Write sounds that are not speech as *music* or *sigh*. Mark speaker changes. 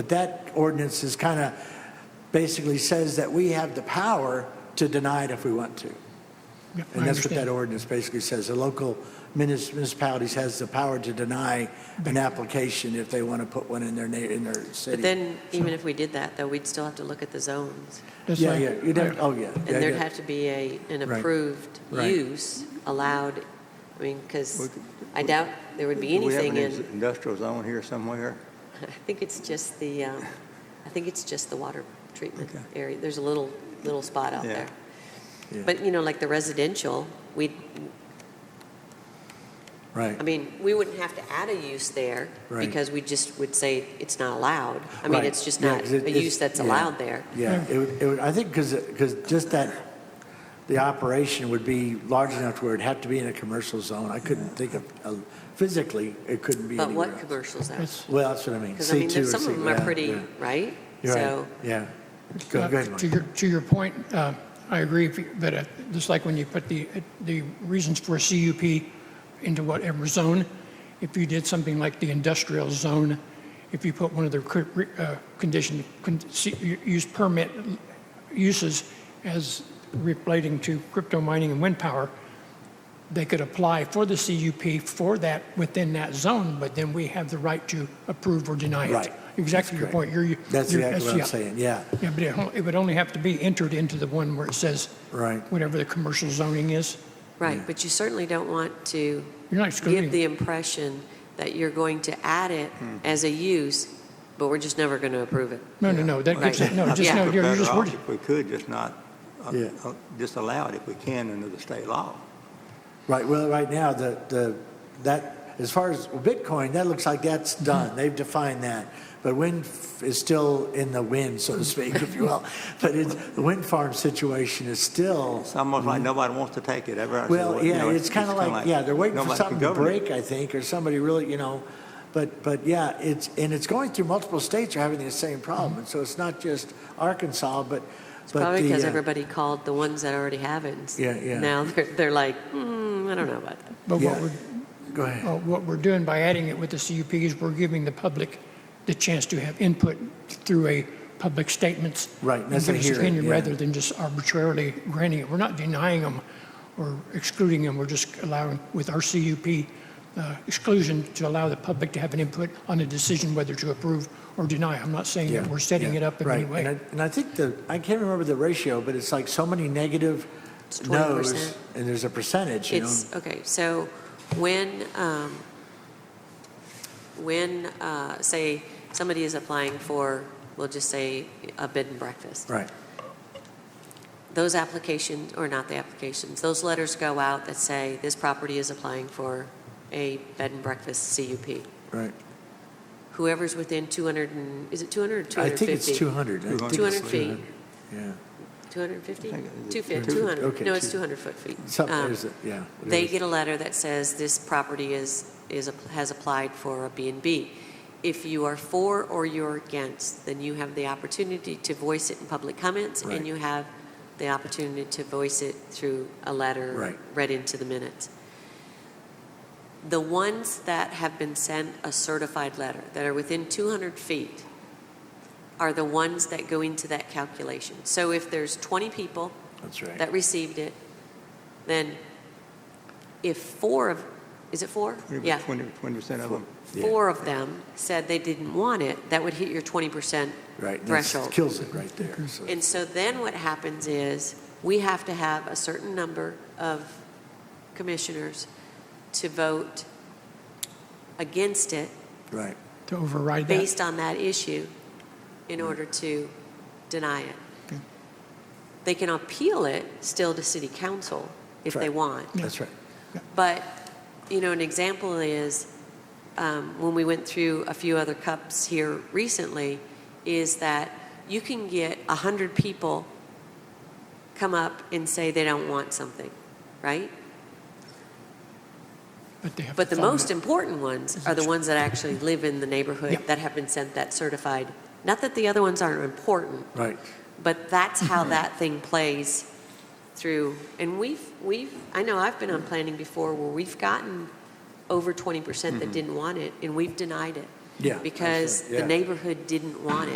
Speaker 1: But that ordinance is kind of, basically says that we have the power to deny it if we want to.
Speaker 2: Yeah,
Speaker 1: And
Speaker 2: I
Speaker 1: that's what
Speaker 2: understand.
Speaker 1: that ordinance basically says. The local munis- municipalities has the power to deny an application if they want to put one in their, na- in their
Speaker 3: But
Speaker 1: city.
Speaker 3: then, even if we did that, though, we'd still have to look at the zones.
Speaker 2: That's
Speaker 1: Yeah,
Speaker 2: right.
Speaker 1: yeah, you'd have, oh, yeah. yeah,
Speaker 3: And there'd
Speaker 1: yeah.
Speaker 3: have to be a, an
Speaker 1: Right.
Speaker 3: approved
Speaker 1: Right.
Speaker 3: use allowed, I mean,
Speaker 1: We
Speaker 3: because
Speaker 1: could-
Speaker 3: I doubt there would be
Speaker 4: Do we have
Speaker 3: anything
Speaker 4: an
Speaker 3: in,
Speaker 4: industrial zone here somewhere?
Speaker 3: *laughs* I think it's just the, um, I think it's just the water treatment
Speaker 4: Okay.
Speaker 3: area. There's a little, little spot out
Speaker 4: Yeah.
Speaker 3: there.
Speaker 1: Yeah.
Speaker 3: But, you know, like the residential, we, I
Speaker 1: Right,
Speaker 3: mean, we wouldn't have to add a use there
Speaker 1: Right.
Speaker 3: because we just would say it's not allowed. I mean,
Speaker 1: Right.
Speaker 3: it's just
Speaker 1: Yeah,
Speaker 3: not
Speaker 1: 'cause it-
Speaker 3: a
Speaker 1: it's-
Speaker 3: use that's
Speaker 1: yeah.
Speaker 3: allowed there.
Speaker 1: yeah. It would, it would, I think because, because just that, the operation would be large enough to where it'd have to be in a commercial zone. I couldn't think of, uh, physically, it couldn't be
Speaker 3: But
Speaker 1: anywhere
Speaker 3: what
Speaker 1: else.
Speaker 3: commercials are?
Speaker 2: It's-
Speaker 1: Well, that's what I mean.
Speaker 3: Because I mean,
Speaker 1: C2 or
Speaker 3: some of them are
Speaker 1: C- yeah,
Speaker 3: pretty,
Speaker 1: yeah.
Speaker 3: right?
Speaker 1: You're
Speaker 3: So,
Speaker 1: right, yeah. Go
Speaker 2: Uh,
Speaker 1: go ahead,
Speaker 2: To
Speaker 1: Mike.
Speaker 2: your, to your point, uh, I agree, if you- but uh, just like when you put the, uh, the reasons for a CUP into whatever zone, if you did something like the industrial zone, if you put one of the cr- re- uh, condition, con- see- u- use permit uses as relating to crypto mining and wind power, they could apply for the CUP for that, within that zone, but then we have the right to approve or deny it.
Speaker 1: Right.
Speaker 2: Exactly your
Speaker 1: Correct.
Speaker 2: point. You're- you're-
Speaker 1: That's exactly what I'm
Speaker 2: yeah.
Speaker 1: saying, yeah.
Speaker 2: Yeah, but it hon- it would only have to be entered into the one where it says.
Speaker 1: Right.
Speaker 2: Whatever the commercial zoning is.
Speaker 3: right, but you certainly don't want to
Speaker 2: You're not
Speaker 3: give the
Speaker 2: excluding.
Speaker 3: impression that you're going to add it
Speaker 1: Hmm.
Speaker 3: as a use, but we're just never going to approve it.
Speaker 2: No, no, no, that
Speaker 3: Right.
Speaker 2: gets,
Speaker 3: *laughs*
Speaker 2: no, just,
Speaker 3: Yeah.
Speaker 2: no,
Speaker 4: We're
Speaker 2: you're you're
Speaker 4: better
Speaker 2: just
Speaker 4: off
Speaker 2: wording.
Speaker 4: If we could, just not, uh,
Speaker 1: Yeah.
Speaker 4: uh, just allow it if we can under the state law.
Speaker 1: Right, well, right now, the, the, that, as far as Bitcoin, that looks like that's done. They've defined that. But wind f- is still in the wind, so to speak, if you will. But it's, the wind farm situation is still,
Speaker 4: It's almost like nobody wants to take it ever.
Speaker 1: Mm-hmm. well,
Speaker 4: you
Speaker 1: yeah,
Speaker 4: know,
Speaker 1: it's kind of
Speaker 4: kinda
Speaker 1: like, yeah, they're waiting for
Speaker 4: nobody can
Speaker 1: something to
Speaker 4: govern it.
Speaker 1: break, I think, or somebody really, you know. But, but yeah, it's, and it's going through multiple states are having the same problem. And so it's not just Arkansas, but, but
Speaker 3: Mm-hmm. Probably
Speaker 1: the,
Speaker 3: because
Speaker 1: uh,
Speaker 3: everybody called the ones that already have it. and s-
Speaker 1: Yeah, yeah.
Speaker 3: Now *laughs* they're, they're like, hmm, I don't know about that.
Speaker 2: But
Speaker 1: yeah.
Speaker 2: what we're,
Speaker 1: Go ahead.
Speaker 2: uh, what we're doing by adding it with the CUP is we're giving the public the chance to have input through a public statements.
Speaker 1: Right,
Speaker 2: and
Speaker 1: that's a
Speaker 2: give us
Speaker 1: hearing,
Speaker 2: opinion
Speaker 1: yeah.
Speaker 2: Rather than just arbitrarily granting it. We're not denying them or excluding them. We're just allowing, with our CUP uh, exclusion, to allow the public to have an input on a decision whether to approve or deny. I'm not saying that
Speaker 1: Yeah,
Speaker 2: we're setting
Speaker 1: yeah,
Speaker 2: it up in
Speaker 1: right.
Speaker 2: any way.
Speaker 1: And I- And I think the, I can't remember the ratio, but it's like so many negative
Speaker 3: It's
Speaker 1: no's,
Speaker 3: 20%.
Speaker 1: and there's a percentage, you know?
Speaker 3: It's, okay, so when, um, when, uh, say, somebody is applying for, we'll just say, a bed and breakfast.
Speaker 1: Right,
Speaker 3: those applications, or not the applications, those letters go out that say, this property is applying for a bed and breakfast CUP.
Speaker 1: right.
Speaker 3: Whoever's within 200, and- is it 200 or
Speaker 1: I
Speaker 3: 250?
Speaker 1: think it's 200. I think it's
Speaker 3: 200 feet,
Speaker 1: 200,
Speaker 3: 250?
Speaker 4: I think it is
Speaker 3: 250,
Speaker 1: 200,
Speaker 3: 200,
Speaker 1: okay,
Speaker 3: no, it's
Speaker 1: two-
Speaker 3: 200 foot feet.
Speaker 1: Yeah, something,
Speaker 3: Um,
Speaker 1: is it, yeah.
Speaker 3: They
Speaker 1: whatever.
Speaker 3: get a letter that says, this property is, is, has applied for a B and B. If you are for or you're against, then you have the opportunity to voice it in public comments,
Speaker 1: Right.
Speaker 3: and you have the opportunity to voice it through a letter
Speaker 1: Right.
Speaker 3: read into the minutes. The ones that have been sent a certified letter, that are within 200 feet, are the ones that go into that calculation. So if there's 20 people
Speaker 1: That's right.
Speaker 3: that received it, then if four of, is it four? Yeah,
Speaker 4: 20 percent of them.
Speaker 1: yeah.
Speaker 3: four of them said they didn't want it, that would hit your 20%.
Speaker 1: Right, and that's-
Speaker 3: threshold.
Speaker 1: Kills it right there. so-
Speaker 3: And so then what happens is, we have to have a certain number of commissioners to vote against it
Speaker 1: Right,
Speaker 2: to override that.
Speaker 3: based on that issue in order to deny it. They can appeal it still to city council if they
Speaker 1: Right.
Speaker 3: want.
Speaker 1: that's right.
Speaker 3: But, you know, an example is, um, when we went through a few other cups here recently, is that you can get 100 people come up and say they don't want something, right?
Speaker 2: But they have
Speaker 3: But
Speaker 2: to
Speaker 3: the
Speaker 2: follow
Speaker 3: most
Speaker 2: that.
Speaker 3: important ones are the ones that actually live in the
Speaker 2: Yeah.
Speaker 3: neighborhood that have been sent that certified. Not that the other ones aren't important,
Speaker 1: Right,
Speaker 3: but that's how that thing plays through. And we've, we've, I know I've been on planning before where we've gotten over 20% that didn't want it, and we've denied it.
Speaker 1: Yeah,
Speaker 3: Because
Speaker 1: absolutely,
Speaker 3: the
Speaker 1: yeah.
Speaker 3: neighborhood didn't want it.